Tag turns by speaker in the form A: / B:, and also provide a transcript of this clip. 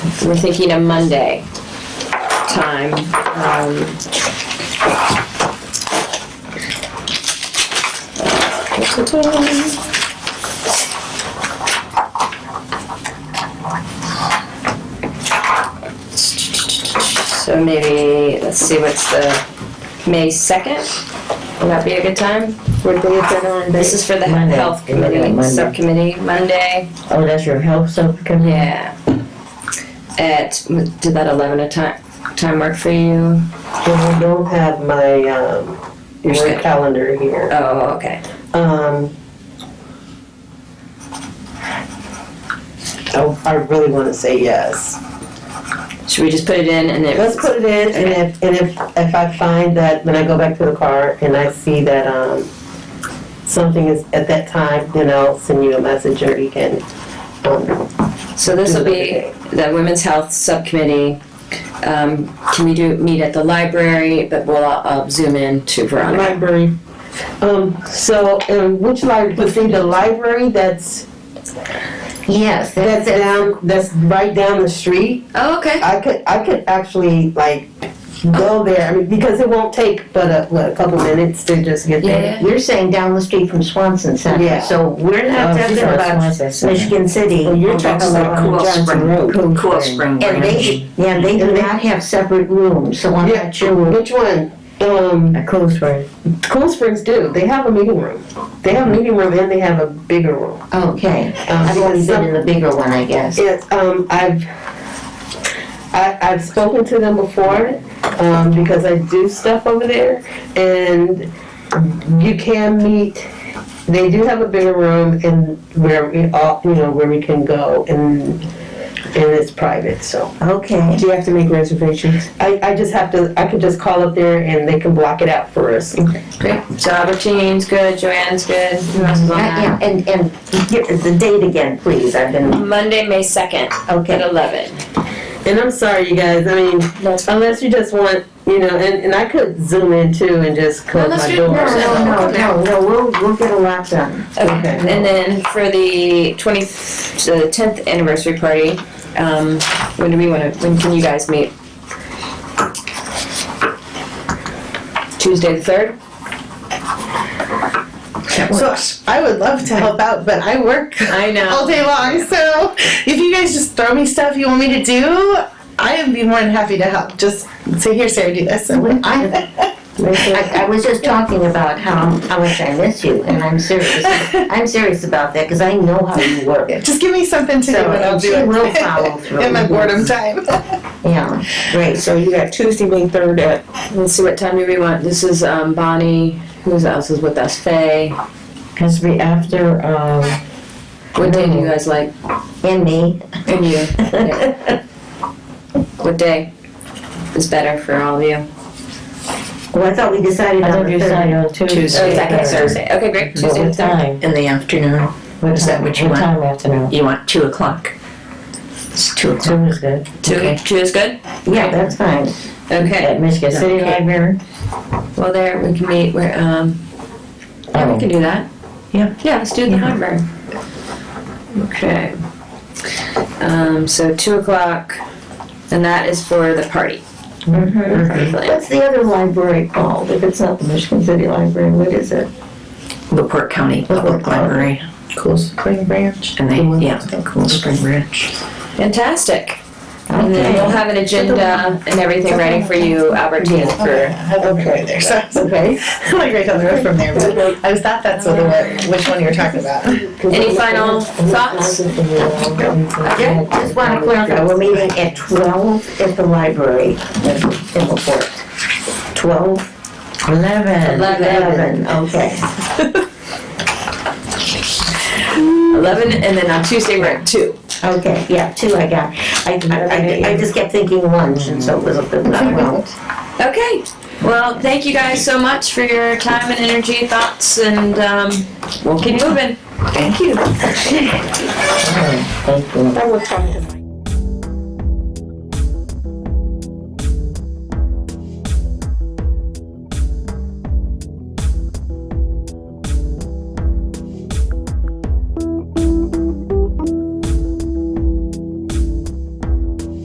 A: We're thinking a Monday time. um, What So maybe, let's see, what's the, May 2nd? Would that be a good time?
B: What day is that on?
A: This is for the
B: Monday.
A: Health
B: You're looking at
A: Committee,
B: Monday.
A: Subcommittee, Monday,
B: Oh, that's your health subcommittee?
A: yeah. At, did that 11 a time, time work for you?
C: Well, I don't have my um,
A: Your
C: work
A: schedule.
C: calendar here.
A: Oh, okay.
C: Um, I, oh, I really want to say yes.
A: Should we just put it in and then?
C: Let's put it in, and if and if if I find that when I go back to the car and I see that um, something is at that time, then I'll send you a message or you can. Um,
A: So this will be the Women's Health Subcommittee. Um, Can we do, meet at the library, but we'll uh, zoom in to Veronica.
C: library. Um, so, um, which library? Let's see, the library that's
B: Yes,
C: that's down that's right down the street.
A: Oh, okay.
C: I could I could actually like go there I mean, because it won't take but a, what, a couple minutes to just get there.
B: You're saying down the street from Swanson
C: Yeah.
B: Center, so we're not
D: Oh,
B: talking
D: she's on
B: about
D: Swanson Center.
B: Michigan City.
C: Well, you're talking about
D: Cool
C: Johnson
D: Spring.
C: Road.
D: Cool Spring
B: And
D: Branch.
B: they, yeah, they do not have separate rooms, so I'm
C: Yeah,
B: not sure.
C: Which one? Um,
B: A close one.
C: Cool Springs do. They have a meeting room. They have a meeting room and they have a bigger room.
B: Okay,
C: Um,
B: I've only been in the bigger one, I guess.
C: Yes, um, I've, I, I've spoken to them before, um, because I do stuff over there, and you can meet, they do have a bigger room and where we all, you know, where we can go, and, and it's private, so.
B: Okay.
D: Do you have to make reservations?
C: I, I just have to, I could just call up there and they can block it out for us.
A: Great. So Albertine's good, Joanne's good. Uh, Who else is on
B: I-
A: that?
B: yeah, And, and give the date again, please, I've been,
A: Monday, May 2nd at
B: okay.
A: 11.
C: And I'm sorry, you guys, I mean,
A: That's
C: unless you just want, you know, and, and I could zoom in too and just close
A: let's
C: my
A: do it.
C: door.
B: No, no, no, no, no, we'll, we'll get a lot done.
A: Okay, and then for the 20th, the 10th anniversary party, um, when do we want to, when can you guys meet? Tuesday the 3rd?
E: So I would love to help out, but I work
A: I
E: all
A: know.
E: day long. So if you guys just throw me stuff you want me to do, I would be more than happy to help. Just say, here, Sarah, do this. And I,
B: I, I was just talking about how, how much I miss you, and I'm serious, I'm serious about that, because I know how you work.
E: just give me something to do
B: So,
E: and I'll
B: and
E: do
B: she
E: it.
B: will follow through.
E: In my boredom time.
B: Yeah, great.
D: So you got Tuesday, May third at,
A: Let's see, what time do we want? This is, um, Bonnie, who else is with us? Faye.
D: has to be after, um,
A: What day do you guys like?
B: And me.
A: And you? Yeah. What day is better for all of you?
B: Well, I thought we decided
D: I
B: on
D: think
B: the
D: you
B: third.
D: said on
A: Oh,
D: Tuesday.
A: second
D: third.
A: Thursday. Okay, great,
D: But
A: Tuesday the
D: what
A: 3rd.
D: time?
F: In the afternoon,
D: What
F: Is that
D: time?
F: what you
D: What
F: want?
D: time afternoon?
F: you want two o'clock. It's two o'clock.
D: Two is good.
A: Two, two is good?
B: Yeah, that's fine.
A: Okay,
D: At Michigan City
B: Okay.
D: Library?
A: well there, we can meet where, um, Yeah, we can do that.
F: Yeah.
A: Yeah, let's do the library. Okay. Um, so two o'clock, and that is for the party.
B: Mhm.
A: Party plan.
B: What's the other library called? If it's not the Michigan City Library, what is it?
F: LaPorte County Public Library.
D: Cool Spring Branch.
F: And they, yeah, Cool Spring Branch.
A: Fantastic. And then we'll have an agenda and everything ready for you, Albertine, for,
E: I live right there. So
B: Okay.
E: I'm like right down the road from there. But I was thought that's what it was- which one you were talking about.
A: any final thoughts?
B: Yeah, just want to clarify, we're meeting at twelve at the library in Laporte. Twelve,
D: Eleven.
A: Eleven,
B: eleven, okay.
A: eleven, and then on Tuesday we're at two.
B: Okay, yeah, two I got. I, I, I- I just kept thinking lunch, and so it was a bit not well.
A: Okay, well, thank you guys so much for your time and energy, thoughts, and, um, we'll keep moving. Thank you.
D: Thank you.
C: I will talk to them.